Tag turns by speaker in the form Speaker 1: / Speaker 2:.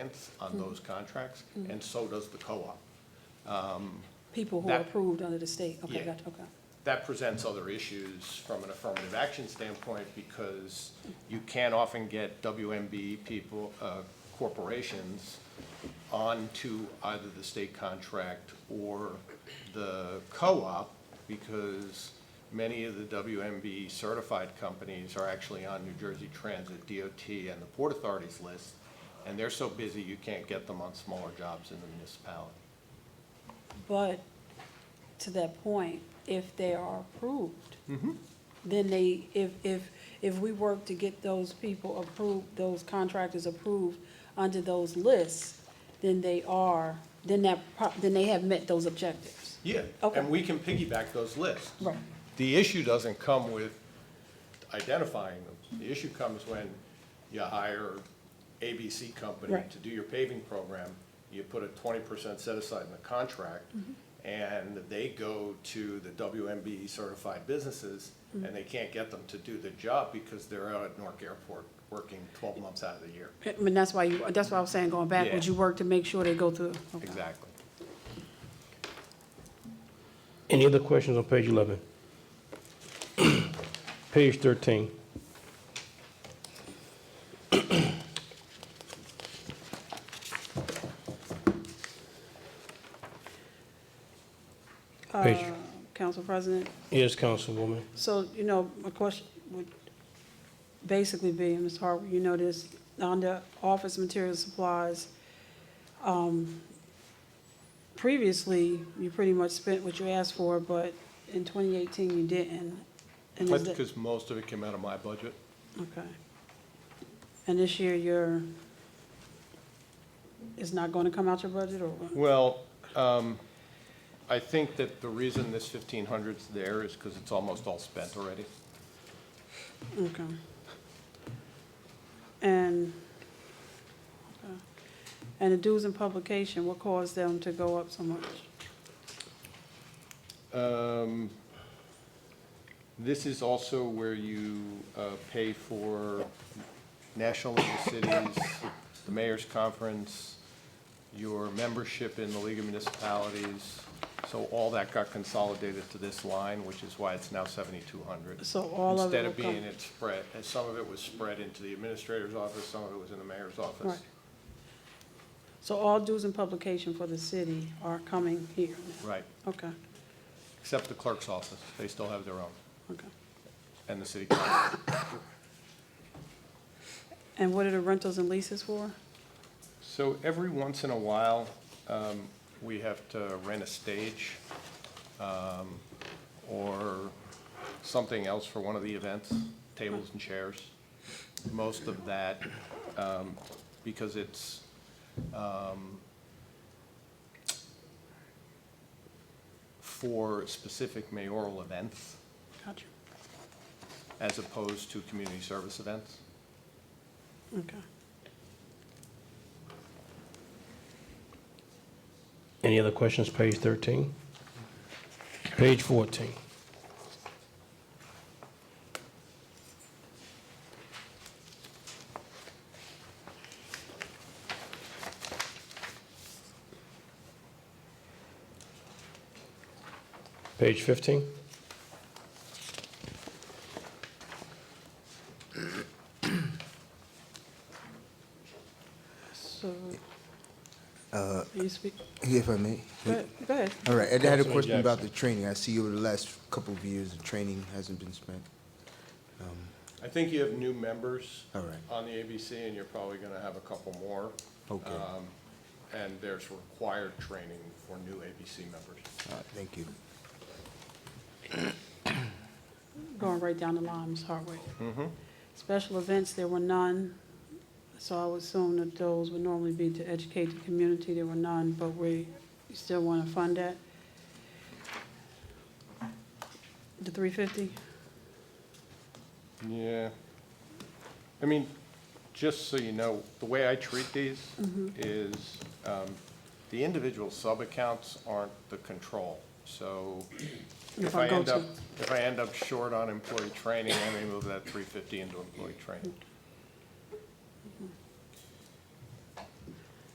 Speaker 1: reliance on those contracts, and so does the co-op.
Speaker 2: People who are
Speaker 1: That-
Speaker 2: approved under the state, okay,
Speaker 1: Yeah.
Speaker 2: gotcha, okay.
Speaker 1: That presents other issues from an affirmative action standpoint because you can often get WMB people, uh, corporations onto either the state contract or the co-op because many of the WMB certified companies are actually on New Jersey Transit, DOT, and the Port Authority's list. And they're so busy, you can't get them on smaller jobs in the municipality.
Speaker 2: But to that point, if they are approved,
Speaker 1: Mm-hmm.
Speaker 2: then they, if, if, if we work to get those people approved, those contractors approved under those lists, then they are, then that, pro- then they have met those objectives.
Speaker 1: Yeah,
Speaker 2: Okay.
Speaker 1: and we can piggyback those lists.
Speaker 2: Right.
Speaker 1: The issue doesn't come with identifying them. The issue comes when you hire ABC company
Speaker 2: Right.
Speaker 1: to do your paving program, you put a twenty percent set aside in the contract,
Speaker 2: Mm-hmm.
Speaker 1: and they go to the WMB certified businesses,
Speaker 2: Mm-hmm.
Speaker 1: and they can't get them to do the job because they're out at Newark Airport working twelve months out of the year.
Speaker 2: I mean, that's why you, that's why I was saying going backwards,
Speaker 1: Yeah.
Speaker 2: you work to make sure they go through. okay.
Speaker 1: Exactly.
Speaker 3: Any other questions on page 11? Page 13. Page,
Speaker 2: Uh, Council President,
Speaker 3: yes, Councilwoman.
Speaker 2: so, you know, my question would basically be, and Ms. Harper, you know this, under office material supplies, um, previously, you pretty much spent what you asked for, but in 2018, you didn't. And is
Speaker 1: That's
Speaker 2: that-
Speaker 1: because most of it came out of my budget.
Speaker 2: Okay. And this year, you're, it's not going to come out your budget, or what?
Speaker 1: Well, um, I think that the reason this fifteen hundred's there is because it's almost all spent already.
Speaker 2: Okay. And, okay. and the dues and publication, what caused them to go up so much?
Speaker 1: Um, This is also where you uh, pay for National League of Cities, the mayor's conference, your membership in the League of Municipalities. So all that got consolidated to this line, which is why it's now seventy-two hundred.
Speaker 2: So all of it
Speaker 1: Instead
Speaker 2: will
Speaker 1: of
Speaker 2: come.
Speaker 1: being it spread, and some of it was spread into the administrator's office, some of it was in the mayor's office.
Speaker 2: Right. So all dues and publication for the city are coming here now?
Speaker 1: Right,
Speaker 2: Okay,
Speaker 1: except the clerk's office, they still have their own,
Speaker 2: okay.
Speaker 1: and the city council.
Speaker 2: And what are the rentals and leases for?
Speaker 1: So every once in a while, um, we have to rent a stage um, or something else for one of the events, tables and chairs. Most of that, um, because it's, um, for specific mayoral events
Speaker 2: Gotcha,
Speaker 1: as opposed to community service events.
Speaker 2: okay.
Speaker 3: Any other questions, page 13? Page 14. Page 15?
Speaker 2: So, you speak,
Speaker 4: If I may.
Speaker 2: go ahead, go ahead.
Speaker 4: All right, and I had a
Speaker 3: Councilman
Speaker 4: question about the
Speaker 3: Jackson.
Speaker 4: training. I see over the last couple of years, the training hasn't been spent.
Speaker 1: I think you have new members.
Speaker 4: All right.
Speaker 1: On the ABC, and you're probably going to have a couple more.
Speaker 4: Okay.
Speaker 1: Um, And there's required training for new ABC members.
Speaker 4: All right, Thank you.
Speaker 2: going right down the line, Ms. Hartwick. Special events, there were none, so I would assume that those would normally be to educate the community, there were none, but we still want to fund that. The three fifty,
Speaker 1: Yeah. I mean, just so you know, the way I treat these is, um, the individual sub-accounts aren't the control. So if
Speaker 2: I
Speaker 1: I
Speaker 2: go
Speaker 1: end
Speaker 2: to-
Speaker 1: up, if I end up short on employee training, I may move that three fifty into employee training.